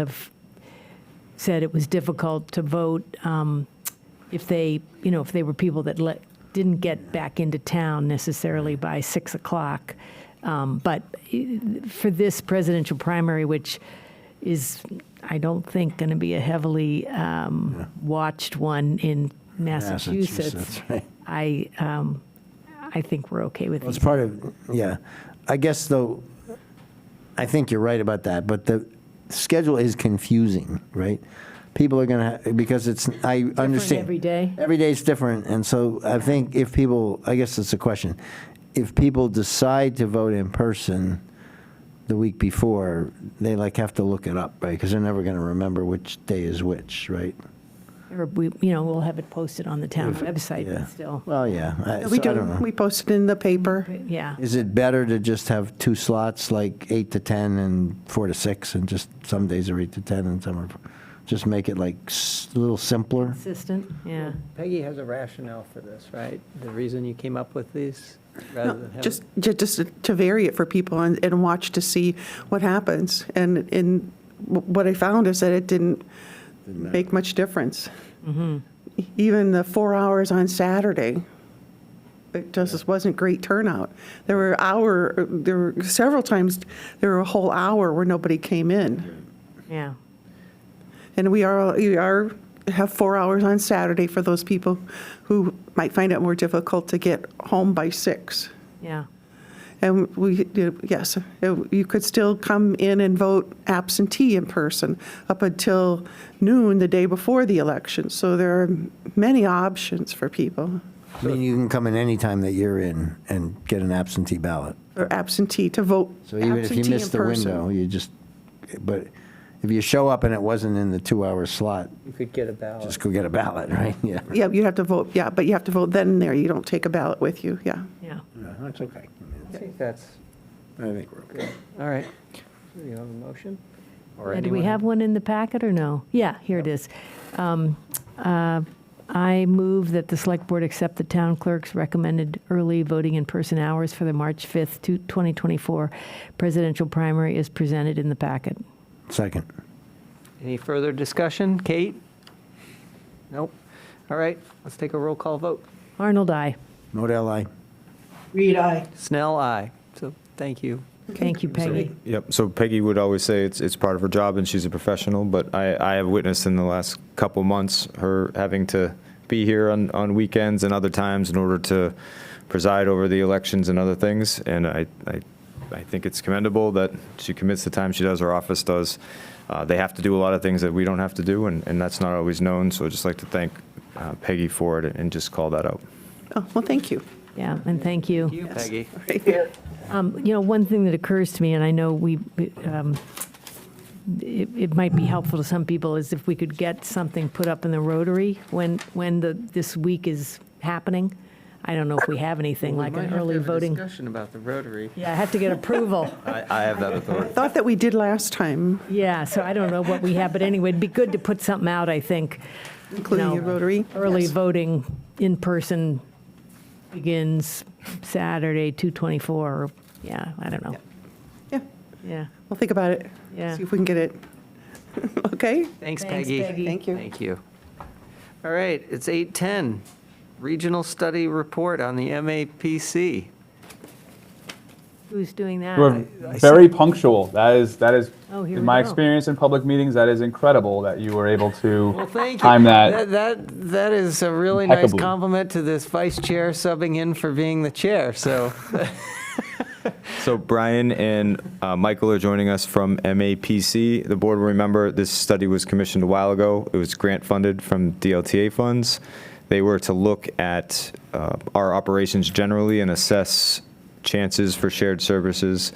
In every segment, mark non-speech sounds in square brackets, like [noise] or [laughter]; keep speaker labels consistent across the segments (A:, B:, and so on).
A: have said it was difficult to vote um, if they, you know, if they were people that let, didn't get back into town necessarily by 6 o'clock. Um, But for this presidential primary, which is, I don't think, going to be a heavily um, watched one in Massachusetts,
B: right.
A: I, um, I think we're okay with
B: Well, it's
A: these.
B: part of, yeah. I guess though, I think you're right about that, but the schedule is confusing, right? People are gonna, ha- because it's, I understand.
A: every day?
B: Every day's different, and so I think if people, I guess it's a question. If people decide to vote in person the week before, they like have to look it up, right? Because they're never gonna remember which day is which, right?
A: Or we, you know, we'll have it posted on the town website
B: Yeah.
A: but still.
B: Well, yeah, I, so
C: We
B: I don't
C: do,
B: know.
C: we post it in the paper.
A: Yeah.
B: Is it better to just have two slots, like eight to 10 and four to six, and just some days are eight to 10 and some are, just make it like s- a little simpler?
A: Consistent, yeah.
D: Peggy has a rationale for this, right? The reason you came up with these rather
C: No,
D: than having.
C: Just, ju- just to- to vary it for people and, and watch to see what happens. And, and wh- what I found is that it didn't make much difference. E, Even the four hours on Saturday, it just wasn't great turnout. There were hour, there were several times, there were a whole hour where nobody came in.
A: Yeah.
C: And we are, we are, have four hours on Saturday for those people who might find it more difficult to get home by six.
A: Yeah.
C: And we, yes, you could still come in and vote absentee in person up until noon the day before the election. So there are many options for people,
B: I mean, you can come in any time that you're in and get an absentee ballot.
C: or absentee to vote
B: So even if you
C: absentee
B: miss
C: in
B: the window,
C: person.
B: you just, but if you show up and it wasn't in the two-hour slot,
D: You could get a ballot.
B: just go get a ballot, [laughs] right? Yeah.
C: Yeah, you have to vote, yeah, but you have to vote then and there. You don't take a ballot with you, yeah.
A: Yeah.
B: That's okay.
D: I think that's,
B: I think we're okay.
D: all right. Do you have a motion? Or
A: And do we
D: anyone-
A: have one in the packet or no? Yeah, here it is. Um, uh, I move that the select board accept the town clerk's recommended early voting in person hours for the March 5th, to 2024 presidential primary is presented in the packet.
B: Second.
D: Any further discussion? Kate? Nope. All right, let's take a roll call vote.
A: Arnold, I.
B: Modell, aye.
D: Snell, aye. So thank you.
A: Thank you, Peggy.
E: Yep, so Peggy would always say it's, it's part of her job and she's a professional, but I, I have witnessed in the last couple months her having to be here on, on weekends and other times in order to preside over the elections and other things. And I, I, I think it's commendable that she commits the time she does, her office does. Uh, they have to do a lot of things that we don't have to do, and, and that's not always known. So I'd just like to thank uh, Peggy for it and just call that out.
C: Oh, well, thank you.
A: Yeah, and thank you.
D: You,
C: Yes.
D: Peggy.
C: All right.
A: Um, You know, one thing that occurs to me, and I know we, um, it it might be helpful to some people, is if we could get something put up in the Rotary when, when the, this week is happening. I don't know if we have anything, like an early voting.
D: Discussion about the Rotary.
A: Yeah, I have to get [laughs] approval.
E: I, I have that authority.
C: Thought that we did last time,
A: Yeah, so I don't know what we have, but anyway, it'd be good to put something out, I think. you
C: including
A: know,
C: the Rotary.
A: Early
C: Yes.
A: voting in person begins Saturday, 2/24, yeah, I don't know,
C: Yeah,
A: yeah.
C: we'll think about it.
A: Yeah.
C: See if we can get it. [laughs] Okay?
D: Thanks,
A: Thanks,
D: Peggy.
A: Peggy.
C: Thank you.
D: Thank you. All right, it's 8:10. Regional Study Report on the MAPC.
A: Who's doing that?
F: We're very punctual. That is that is
A: Oh, here
F: in
A: we
F: my
A: go.
F: experience in public meetings. That is incredible that you were able to
D: Well, thank you.
F: time that.
D: That, that is a really nice
F: Impeccably.
D: compliment to this vice chair subbing in for being the chair, [laughs] so.
E: So Brian and uh, Michael are joining us from MAPC. The board will remember this study was commissioned a while ago. It was grant funded from DLTA funds. They were to look at uh, our operations generally and assess chances for shared services.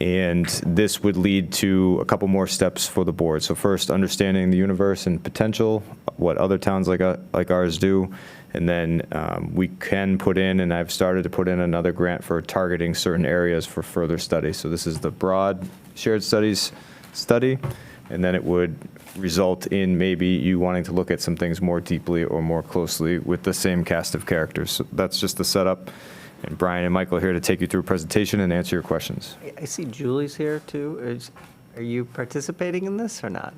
E: And this would lead to a couple more steps for the board. So first, understanding the universe and potential, what other towns like, uh, like ours do. And then um, we can put in, and I've started to put in another grant for targeting certain areas for further study. So this is the broad shared studies study. And then it would result in maybe you wanting to look at some things more deeply or more closely with the same cast of characters. So that's just the setup. And Brian and Michael are here to take you through a presentation and answer your questions.
D: I see Julie's here, too. Is- Are you participating in this or not?